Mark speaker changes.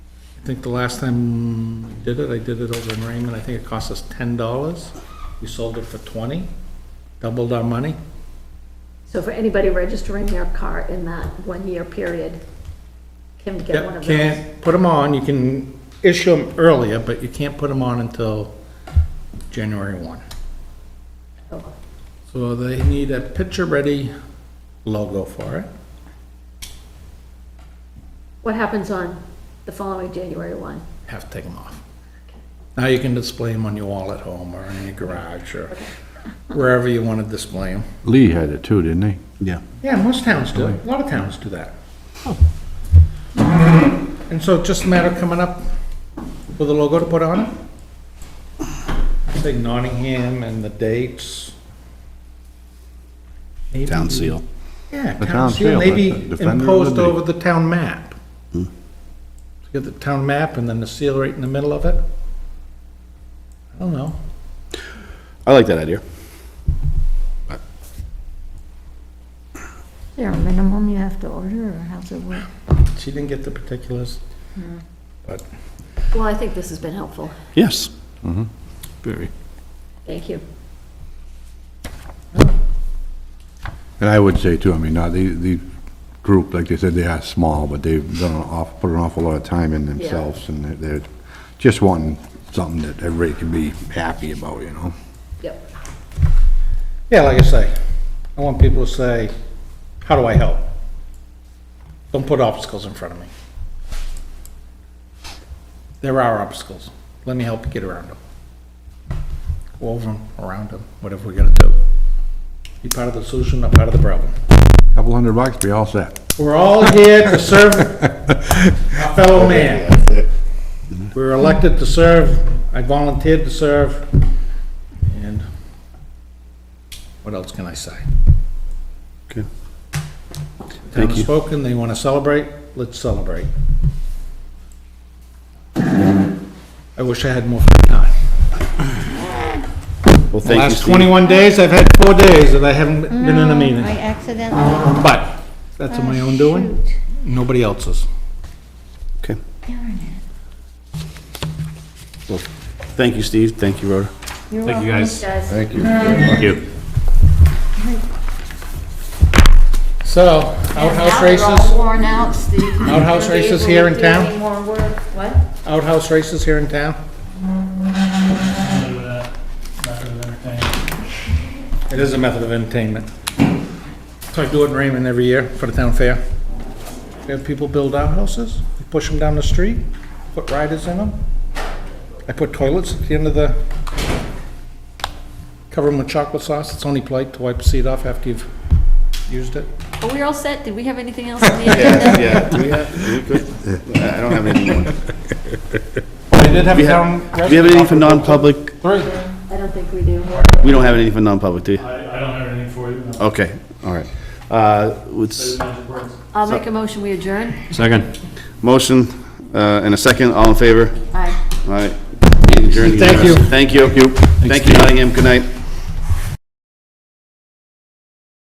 Speaker 1: think the last time I did it, I did it over in Raymond, I think it cost us ten dollars. We sold it for twenty, doubled our money.
Speaker 2: So for anybody registering their car in that one-year period, can get one
Speaker 1: Yep,
Speaker 2: of those.
Speaker 1: can't put them on, you can issue them earlier, but you can't put them on until January one.
Speaker 2: Oh,
Speaker 1: So they need a picture-ready logo for it.
Speaker 2: What happens on the following January 1?
Speaker 1: have to take them off. Now you can display them on your wall at home or in your garage or wherever you want to display them.
Speaker 3: Lee had it too, didn't he?
Speaker 4: Yeah.
Speaker 1: Yeah, most towns do. A lot of towns do that. And so it's just a matter of coming up with a logo to put on it. Say Nottingham and the dates. Maybe-
Speaker 4: Town seal.
Speaker 1: Yeah,
Speaker 3: The
Speaker 1: town seal,
Speaker 3: like
Speaker 1: maybe
Speaker 3: the Defender of
Speaker 1: imposed
Speaker 3: Liberty. Hmm.
Speaker 1: over the town map. So you Get the town map and then the seal right in the middle of it. I don't know.
Speaker 4: I like that idea.
Speaker 5: Is there a minimum you have to order, or how's it work?
Speaker 1: She didn't get the particulars. But
Speaker 2: Well, I think this has been helpful.
Speaker 4: Yes.
Speaker 3: Very.
Speaker 2: Thank you.
Speaker 3: And I would say too, I mean, not the, the group, like they said, they are small, but they've done an awful, put an awful lot of time in themselves, and they're, they're just wanting something that everybody can be happy about, you know?
Speaker 2: Yep.
Speaker 1: Yeah, like I say, I want people to say, how do I help? Don't put obstacles in front of me. There are obstacles. Let me help you get around them. Go over them, around them, whatever we gotta do. Be part of the solution, not part of the problem.
Speaker 3: Couple hundred bucks, be all set.
Speaker 1: We're all here to serve our fellow man. We were elected to serve, I volunteered to serve, and what else can I say?
Speaker 4: Okay.
Speaker 1: Town
Speaker 4: Thank
Speaker 1: has
Speaker 4: you.
Speaker 1: spoken, they want to celebrate, let's celebrate. I wish I had more free time.
Speaker 4: Well,
Speaker 1: The
Speaker 4: thank you,
Speaker 1: last
Speaker 4: Steve.
Speaker 1: 21 days, I've had four days that I haven't been in a meeting,
Speaker 5: I Oh, accidentally.
Speaker 1: but that's of my own doing, nobody else's.
Speaker 4: Okay. Well, Thank you, Steve. Thank you, Rhoda.
Speaker 5: Thank you, guys.
Speaker 3: Thank you.
Speaker 4: Thank you.
Speaker 1: So, outhouse races?
Speaker 5: all worn out, Steve.
Speaker 1: Outhouse
Speaker 5: Won't be
Speaker 1: races
Speaker 5: able to
Speaker 1: here in
Speaker 5: do
Speaker 1: town?
Speaker 5: any more work. What?
Speaker 1: outhouse races here in town?
Speaker 6: do that method of entertainment.
Speaker 1: It is a method of entertainment. So I do it in Raymond every year for the town fair. We have people build outhouses, we push them down the street, put riders in them. I put toilets at the end of the, cover them with chocolate sauce, it's only polite to wipe the seat off after you've used it.
Speaker 2: Are we all set? Did we have anything else on the agenda?
Speaker 4: Yeah, yeah. Do we have, do we good? I don't have anything. more.
Speaker 1: I did have
Speaker 4: Do
Speaker 1: a
Speaker 4: you
Speaker 1: town.
Speaker 4: have do you have anything for non-public?
Speaker 1: Three.
Speaker 2: I don't think we do.
Speaker 4: We don't have anything for non-public, do you?
Speaker 6: I, I don't have anything for you. no.
Speaker 4: Okay, all right. Uh, it's
Speaker 6: Magic words.
Speaker 2: I'll make a motion, we adjourn.
Speaker 4: Second. Motion, uh, and a second. All in favor?
Speaker 2: Aye.
Speaker 4: All right. Meeting adjourned
Speaker 1: Thank you.
Speaker 4: unanimously. Thank you. Thank you, Nottingham. Good night.